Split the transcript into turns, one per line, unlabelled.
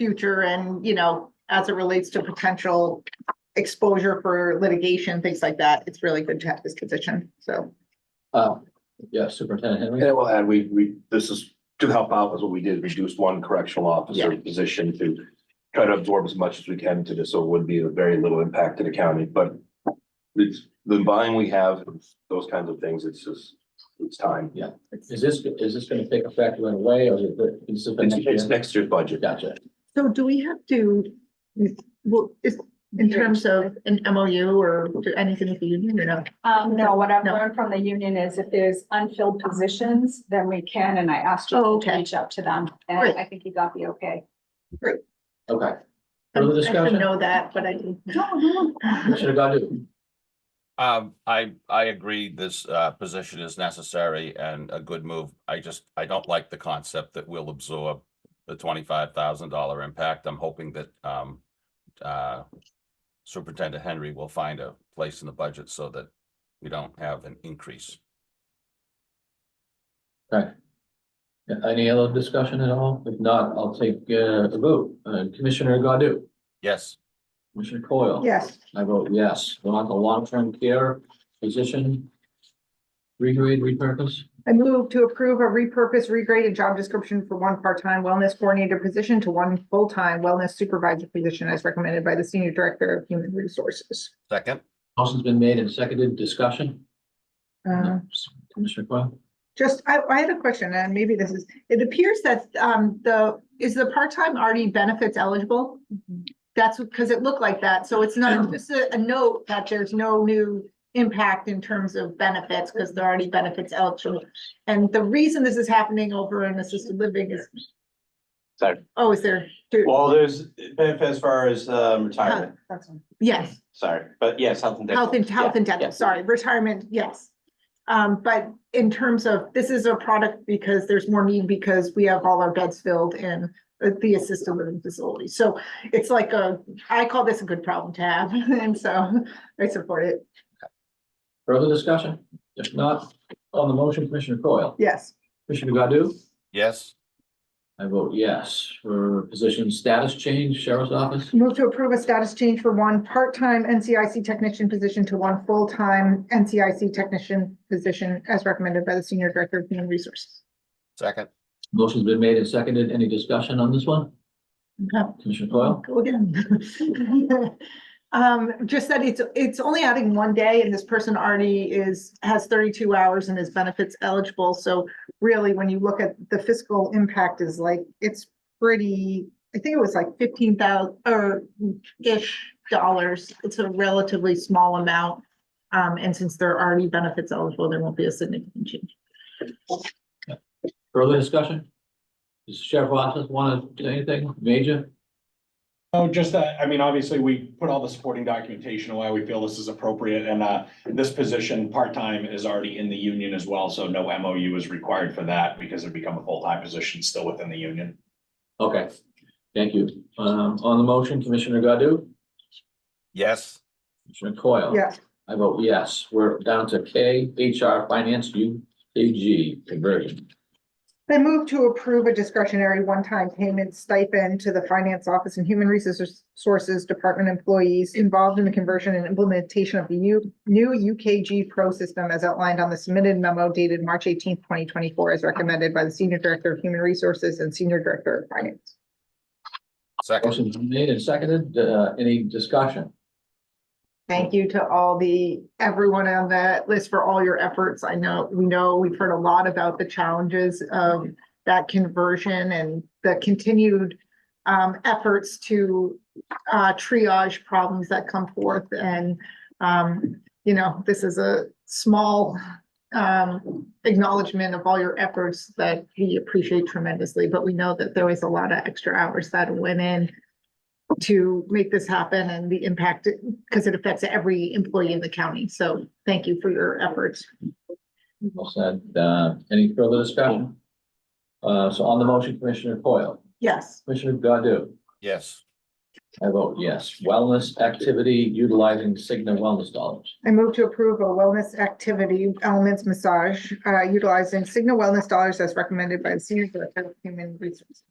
future and, you know, as it relates to potential exposure for litigation, things like that, it's really good to have this position, so.
Uh, yeah, Superintendent Henry.
And I will add, we, we, this is to help out with what we did, reduce one correctional officer position to try to absorb as much as we can to this, so it would be a very little impact to the county, but it's, the buying we have, those kinds of things, it's just, it's time.
Is this, is this gonna take effect right away or is it, is this the
It's,
next
it's
year?
next year's budget.
Gotcha.
So do we have to, well, is, in terms of an MOU or anything with the union or no?
Um, no, what I've
No.
learned from the union is if there's unfilled positions, then we can, and I asked
Oh,
you to
okay.
reach out to them, and
Great.
I think you got the okay.
Okay.
I
Further
should
discussion?
know that, but I didn't.
Commissioner Godu?
Um, I, I agree this, uh, position is necessary and a good move. I just, I don't like the concept that we'll absorb the twenty-five thousand dollar impact. I'm hoping that, um, uh, Superintendent Henry will find a place in the budget so that we don't have an increase.
Okay. Yeah, Any other discussion at all? If not, I'll take uh, a vote. Uh, Commissioner Godu?
Yes,
Commissioner Coyle?
Yes,
I vote yes. We're on the long-term care position. Regrade, repurpose?
I move to approve a repurpose, regrade, and job description for one part-time wellness coordinator position to one full-time wellness supervisor position as recommended by the senior director of human resources.
second?
Motion's been made and seconded. Discussion?
Uh,
Commissioner Coyle?
Just, I, I had a question, and maybe this is, it appears that, um, the, is the part-time already benefits eligible? That's because it looked like that, so it's not, just a, a note that there's no new impact in terms of benefits, because they're already benefits eligible. And the reason this is happening over in assisted living is.
Sorry.
Oh, is there, do-
Well, there's benefit as far as um retirement,
yes,
sorry, but yes, health and dental.
health and, health and
Yeah,
dental,
yeah.
sorry, retirement, yes. Um, but in terms of, this is a product because there's more need because we have all our beds filled in the- the assisted living facility. So it's like a, I call this a good problem to have, and so I support it.
Further discussion? If not, on the motion, Commissioner Coyle?
Yes,
Commissioner Godu?
Yes,
I vote yes for position status change, sheriff's office.
move to approve a status change for one part-time NCIC technician position to one full-time NCIC technician position as recommended by the Senior Director of Human Resources.
second?
Motion's been made and seconded. Any discussion on this one?
Okay.
Commissioner Coyle?
Go again. Um, just that it's, it's only adding one day and this person already is, has thirty-two hours and is benefits eligible. So really, when you look at the fiscal impact is like, it's pretty, I think it was like fifteen thousand or ish dollars. It's a relatively small amount. Um, and since they're already benefits eligible, there won't be a significant change.
Further discussion? Does Sheriff Office want to do anything major?
Oh, just that, I mean, obviously, we put all the supporting documentation why we feel this is appropriate, and uh, this position, part-time, is already in the union as well, so no MOU is required for that because it become a full-time position still within the union.
Okay, thank you. Um, on the motion, Commissioner Godu?
Yes,
Commissioner Coyle?
Yeah,
I vote yes. We're down to K, HR, Finance, U, A, G, conversion.
I move to approve a discretionary one-time payment stipend to the Finance Office and Human Resources Department employees involved in the conversion and implementation of the new, new UKG Pro system as outlined on the submitted memo dated March eighteenth, twenty twenty-four, as recommended by the Senior Director of Human Resources and Senior Director of Finance.
second?
Motion's been made and seconded. Uh, any discussion?
Thank you to all the, everyone on that list for all your efforts. I know, we know, we've heard a lot about the challenges of that conversion and the continued um, efforts to uh, triage problems that come forth and um, you know, this is a small um, acknowledgement of all your efforts that we appreciate tremendously, but we know that there was a lot of extra hours that went in to make this happen and the impact, because it affects every employee in the county. So thank you for your efforts.
Well said. Uh, any further discussion? Uh, so on the motion, Commissioner Coyle,
Yes.
Commissioner Godu?
Yes,
I vote yes. Wellness activity utilizing Cigna wellness dollars.
I move to approve a wellness activity elements massage uh, utilizing Cigna Wellness dollars as recommended by the Senior Director of Human Resources.